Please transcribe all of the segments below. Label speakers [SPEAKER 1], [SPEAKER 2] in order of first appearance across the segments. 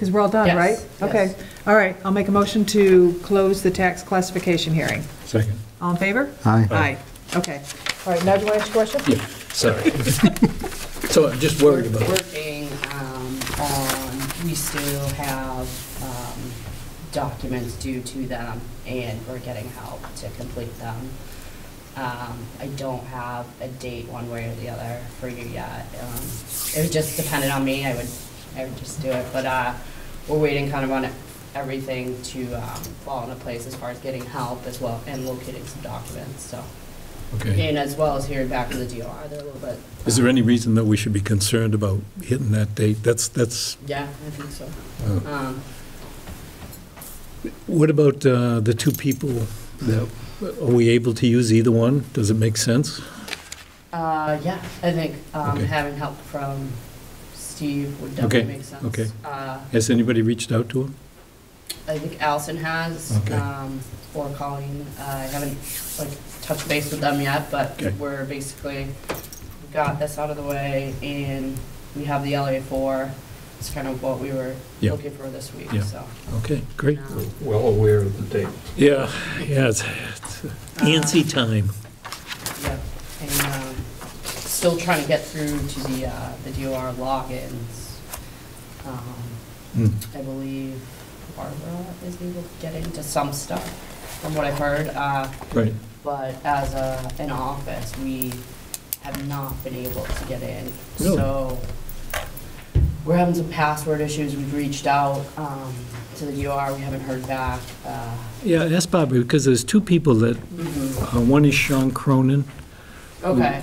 [SPEAKER 1] Because we're all done,
[SPEAKER 2] Yes,
[SPEAKER 1] right?
[SPEAKER 2] yes.
[SPEAKER 1] Okay, all right, I'll make a motion to close the tax classification hearing.
[SPEAKER 3] Second.
[SPEAKER 1] All in favor?
[SPEAKER 4] Aye.
[SPEAKER 1] Aye, okay. All right, now do you want to ask a question?
[SPEAKER 3] Yeah, sorry. So I'm just worried about it.
[SPEAKER 2] Working um, on, we still have um, documents due to them, and we're getting help to complete them. Um, I don't have a date one way or the other for you yet. Um, It was just dependent on me, I would, I would just do it, but uh, we're waiting kind of on everything to um, fall into place as far as getting help as well, and locating some documents, so.
[SPEAKER 3] Okay.
[SPEAKER 2] And as well as hearing back from the DOR, they're a little bit. um,
[SPEAKER 3] Is there any reason that we should be concerned about hitting that date? That's, that's,
[SPEAKER 2] Yeah, I think so.
[SPEAKER 3] uh,
[SPEAKER 2] Um,
[SPEAKER 3] what about uh, the two people that, are we able to use either one? Does it make sense?
[SPEAKER 2] uh, Yeah, I think um,
[SPEAKER 3] Okay.
[SPEAKER 2] having help from Steve would definitely
[SPEAKER 3] Okay,
[SPEAKER 2] make sense.
[SPEAKER 3] okay.
[SPEAKER 2] Uh,
[SPEAKER 3] Has anybody reached out to him?
[SPEAKER 2] I think Allison has,
[SPEAKER 3] Okay.
[SPEAKER 2] um, or Colleen. Uh, I haven't, like, touched base with them yet, but
[SPEAKER 3] Okay.
[SPEAKER 2] we're basically, we got this out of the way, and we have the LA four. It's kind of what we were
[SPEAKER 3] Yeah.
[SPEAKER 2] looking for this week,
[SPEAKER 3] Yeah.
[SPEAKER 2] so.
[SPEAKER 3] Okay, great.
[SPEAKER 2] um,
[SPEAKER 5] well aware of the date.
[SPEAKER 3] Yeah, yeah, it's it's antsy time.
[SPEAKER 2] Yeah, and um, still trying to get through to the, uh, the DOR logins. Um,
[SPEAKER 5] Hmm,
[SPEAKER 3] Mm.
[SPEAKER 2] I believe Barbara is able to get into some stuff, from what I've heard. uh,
[SPEAKER 3] Right,
[SPEAKER 2] But as a, an office, we have not been able to get in.
[SPEAKER 3] Really?
[SPEAKER 2] So we're having some password issues. We've reached out um, to the DOR. We haven't heard back. uh,
[SPEAKER 3] yeah, that's Bobby, because there's two people that, uh, one is Sean Cronin.
[SPEAKER 2] Okay.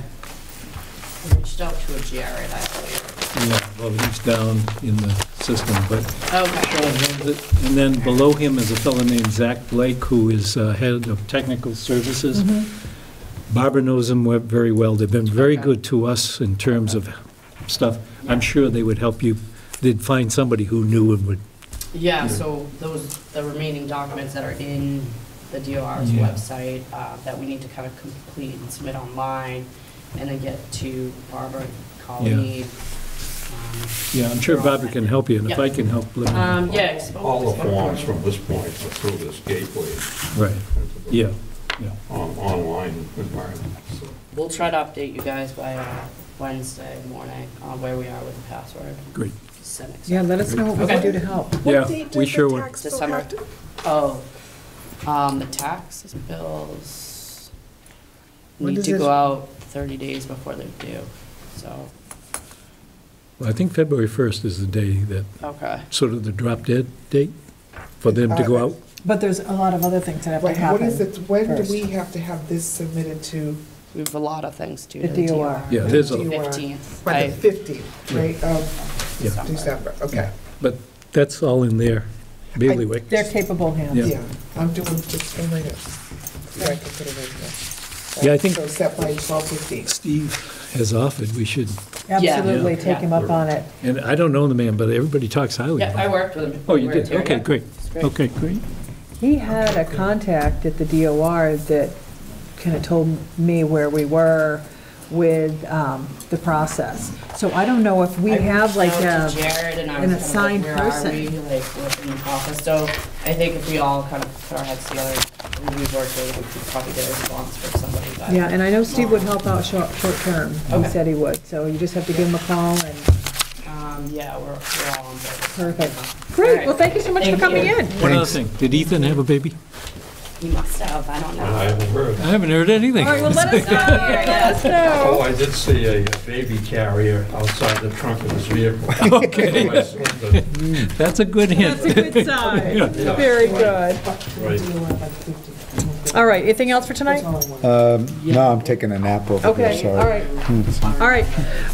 [SPEAKER 2] I Reached out to a Jared, I believe.
[SPEAKER 3] Yeah, well, he's down in the system, but
[SPEAKER 2] Okay.
[SPEAKER 3] And then below him is a fellow named Zach Blake, who is uh, head of technical services. Barbara knows him we- very well. They've been very
[SPEAKER 2] Mm-hmm. Okay.
[SPEAKER 3] good to us in terms of stuff. I'm sure they would help you, they'd find somebody who knew and would,
[SPEAKER 2] Yeah, so those, the remaining documents that are in the DOR's
[SPEAKER 3] Yeah.
[SPEAKER 2] website uh, that we need to kind of complete and submit online and then get to Barbara and Colleen.
[SPEAKER 3] yeah, I'm sure Barbara can help you, and if I
[SPEAKER 2] Yeah.
[SPEAKER 3] can help, let me know.
[SPEAKER 2] Um, yeah. I spoke
[SPEAKER 5] All
[SPEAKER 2] with one
[SPEAKER 5] the
[SPEAKER 2] of
[SPEAKER 5] forms
[SPEAKER 2] them.
[SPEAKER 5] from this point are through this gateway
[SPEAKER 3] Right,
[SPEAKER 5] into the
[SPEAKER 3] yeah, yeah.
[SPEAKER 5] on- online environment. so.
[SPEAKER 2] We'll try to update you guys by uh, Wednesday morning on where we are with the password.
[SPEAKER 3] Great.
[SPEAKER 2] Send it.
[SPEAKER 1] Yeah, let us know what we can do
[SPEAKER 2] Okay.
[SPEAKER 1] to help.
[SPEAKER 3] Yeah, we sure would.
[SPEAKER 2] December. Oh, um, the taxes bills
[SPEAKER 1] When
[SPEAKER 2] need
[SPEAKER 1] does
[SPEAKER 2] to
[SPEAKER 1] this-
[SPEAKER 2] go out 30 days before they're due, so,
[SPEAKER 3] Well, I think February 1st is the day that,
[SPEAKER 2] okay.
[SPEAKER 3] sort of the drop dead date for them to go out.
[SPEAKER 1] But there's a lot of other things that have to
[SPEAKER 6] Wait, What is
[SPEAKER 1] happen.
[SPEAKER 6] it, when do we
[SPEAKER 1] first.
[SPEAKER 6] have to have this submitted to?
[SPEAKER 2] We have a lot of things due to
[SPEAKER 1] The
[SPEAKER 2] the
[SPEAKER 1] DOR.
[SPEAKER 2] DOR.
[SPEAKER 3] Yeah, there's a-
[SPEAKER 6] DOR?
[SPEAKER 2] 15th.
[SPEAKER 6] By
[SPEAKER 2] I-
[SPEAKER 6] the 15th, right, of
[SPEAKER 3] Yeah.
[SPEAKER 6] December, okay.
[SPEAKER 3] But that's all in there, bailiwick.
[SPEAKER 1] They're capable hands.
[SPEAKER 3] Yeah.
[SPEAKER 6] Yeah, I'm doing just one right now. So I can put it in there.
[SPEAKER 3] Yeah, I think-
[SPEAKER 6] So set by 12:15.
[SPEAKER 3] Steve has offered we should,
[SPEAKER 1] Absolutely,
[SPEAKER 2] Yeah.
[SPEAKER 1] take him up on it.
[SPEAKER 3] and I don't know the man, but everybody talks highly
[SPEAKER 2] Yeah,
[SPEAKER 3] of
[SPEAKER 2] I
[SPEAKER 3] him.
[SPEAKER 2] worked with him.
[SPEAKER 3] Oh, you
[SPEAKER 2] We were
[SPEAKER 3] did?
[SPEAKER 2] here,
[SPEAKER 3] Okay,
[SPEAKER 2] yeah.
[SPEAKER 3] great.
[SPEAKER 2] It's great.
[SPEAKER 3] Okay, great.
[SPEAKER 1] He had a contact at the DOR that kind of told me where we were with um, the process. So I don't know if we
[SPEAKER 2] I
[SPEAKER 1] have like
[SPEAKER 2] reached out
[SPEAKER 1] a,
[SPEAKER 2] to Jared and I
[SPEAKER 1] an
[SPEAKER 2] was
[SPEAKER 1] assigned
[SPEAKER 2] kind of like, where are
[SPEAKER 1] person.
[SPEAKER 2] we, like, within the office, so I think if we all kind of put our heads together, we worked with, we could probably get a response from somebody, but.
[SPEAKER 1] yeah, and I know Steve would help out short, short term. He
[SPEAKER 2] Okay.
[SPEAKER 1] said he would, so you just have to give him a call and,
[SPEAKER 2] Um, yeah, we're, we're all on board.
[SPEAKER 1] perfect. Great, well, thank you so much for
[SPEAKER 2] Thank
[SPEAKER 1] coming
[SPEAKER 2] you.
[SPEAKER 1] in.
[SPEAKER 3] One other thing, did Ethan have a baby?
[SPEAKER 2] You must have, I don't
[SPEAKER 5] And I
[SPEAKER 2] know.
[SPEAKER 5] haven't heard.
[SPEAKER 3] I haven't heard anything.
[SPEAKER 1] All right, well, let us know, let us
[SPEAKER 5] Oh,
[SPEAKER 1] know.
[SPEAKER 5] I did see a baby carrier outside the trunk of his vehicle. Okay.
[SPEAKER 3] That's a good
[SPEAKER 1] That's a
[SPEAKER 3] hint.
[SPEAKER 1] good sign, very good.
[SPEAKER 5] Right.
[SPEAKER 1] All right, anything else for tonight?
[SPEAKER 4] Um, No, I'm taking a nap over here,
[SPEAKER 1] Okay, all
[SPEAKER 4] sorry.
[SPEAKER 1] right. All right,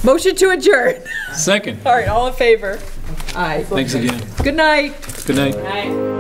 [SPEAKER 1] motion to adjourn.
[SPEAKER 3] Second,
[SPEAKER 1] All right, all in favor? Aye.
[SPEAKER 3] thanks again.
[SPEAKER 1] Good night.
[SPEAKER 3] Good night.
[SPEAKER 2] Right.